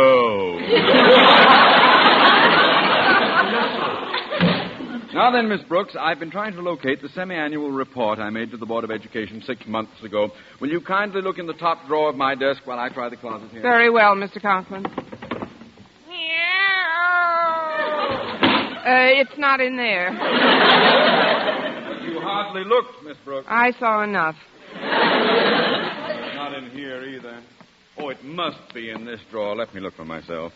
go. now then, Miss Brooks, I've been trying to locate the semi-annual report I made to the Board of Education six months ago. Will you kindly look in the top drawer of my desk while I try the closet here? Very well, Mr. Conklin. Uh, it's not in there. You hardly looked, Miss Brooks. I saw enough. Not in here either. Oh, it must be in this drawer. Let me look for myself.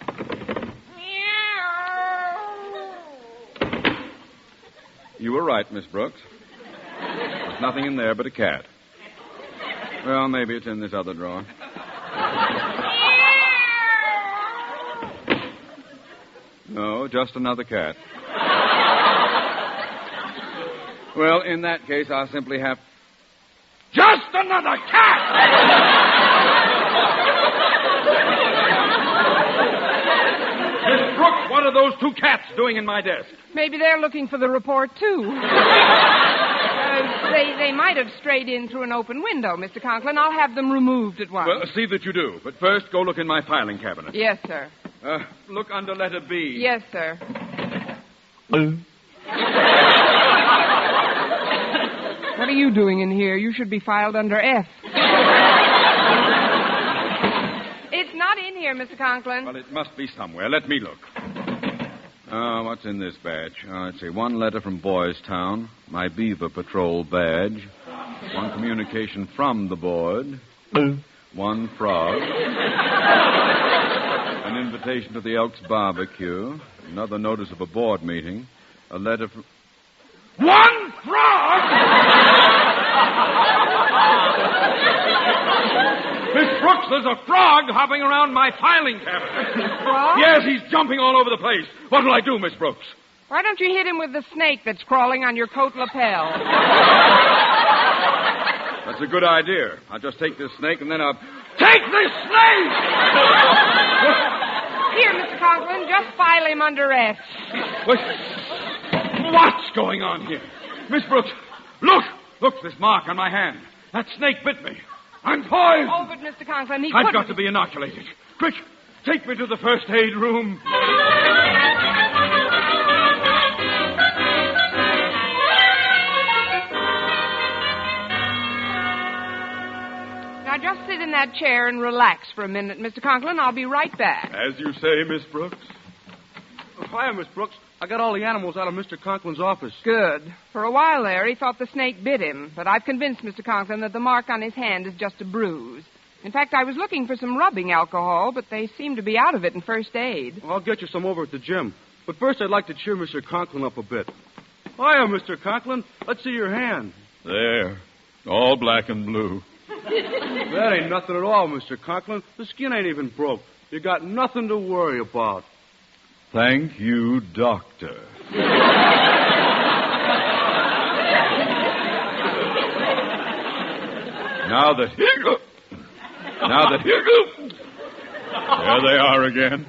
You were right, Miss Brooks. There's nothing in there but a cat. Well, maybe it's in this other drawer. No, just another cat. Well, in that case, I'll simply have. Just another cat! Miss Brooks, what are those two cats doing in my desk? Maybe they're looking for the report, too. Uh, they, they might have strayed in through an open window, Mr. Conklin. I'll have them removed at once. Well, uh, see that you do. But first, go look in my filing cabinet. yes, sir. Uh, look under letter B. Yes, sir. what are you doing in here? You should be filed under F. it's not in here, Mr. Conklin. Well, it must be somewhere. Let me look. Uh, what's in this badge? Uh, let's see. One letter from Boys Town, my Beaver Patrol badge, one communication from the board, one frog, an invitation to the Elks barbecue, another notice of a board meeting, a letter from. One frog! Miss Brooks, there's a frog hopping around my filing cabinet. Frog? Yes, he's jumping all over the place. What'll I do, Miss Brooks? Why don't you hit him with the snake that's crawling on your coat lapel? That's a good idea. I'll just take this snake and then I'll. Take this snake! Here, Mr. Conklin, just file him under F. What- What's going on here? Miss Brooks, look! Look, this mark on my hand. That snake bit me. I'm poisoned! Oh, but Mr. Conklin, he I've couldn't. got to be inoculated. Quick, take me to the first aid room. Now, just sit in that chair and relax for a minute, Mr. Conklin. I'll be right back. As you say, Miss Brooks. Hi, Miss Brooks. I got all the animals out of Mr. Conklin's office. Good. For a while there, he thought the snake bit him, but I've convinced Mr. Conklin that the mark on his hand is just a bruise. In fact, I was looking for some rubbing alcohol, but they seem to be out of it in first aid. I'll get you some over at the gym. But first, I'd like to cheer Mr. Conklin up a bit. Hiya, Mr. Conklin. Let's see your hand. There. All black and blue. That ain't nothing at all, Mr. Conklin. The skin ain't even broke. You got nothing to worry about. Thank you, Doctor. now that. Now that. There they are again.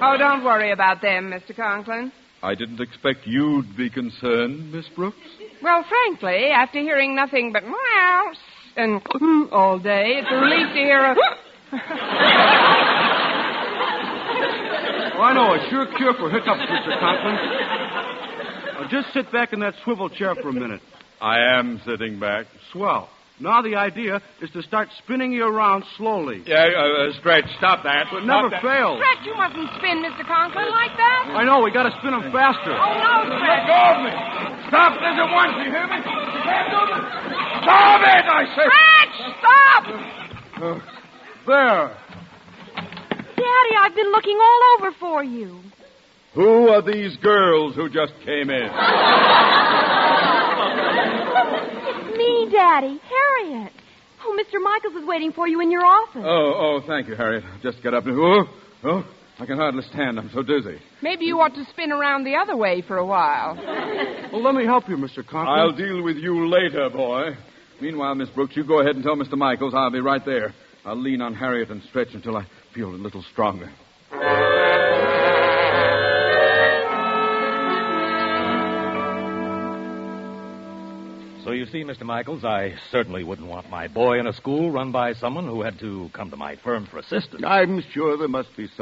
Oh, don't worry about them, Mr. Conklin. I didn't expect you'd be concerned, Miss Brooks. Well, frankly, after hearing nothing but meow and all day, it's a relief to hear a. Oh, I know a sure cure for hiccups, Mr. Conklin. Now, just sit back in that swivel chair for a minute. I am sitting back. Swell. Now the idea is to start spinning you around slowly. Yeah, uh, uh, Stretch, stop that. But Stop never that. fail. Stretch, you mustn't spin, Mr. Conklin, like that. I know, we gotta spin them faster. Oh, no, Stretch. Go of me. Stop this at once, you hear me? Stop it, I say. Stretch, stop! There. Daddy, I've been looking all over for you. Who are these girls who just came in? It's me, Daddy. Harriet. Oh, Mr. Michaels is waiting for you in your office. Oh, oh, thank you, Harriet. Just get up. Oh, oh, I can hardly stand. I'm so dizzy. Maybe you ought to spin around the other way for a while. Well, let me help you, Mr. Conklin. I'll deal with you later, boy. Meanwhile, Miss Brooks, you go ahead and tell Mr. Michaels I'll be right there. I'll lean on Harriet and stretch until I feel a little stronger. So you see, Mr. Michaels, I certainly wouldn't want my boy in a school run by someone who had to come to my firm for assistance. I'm sure there must be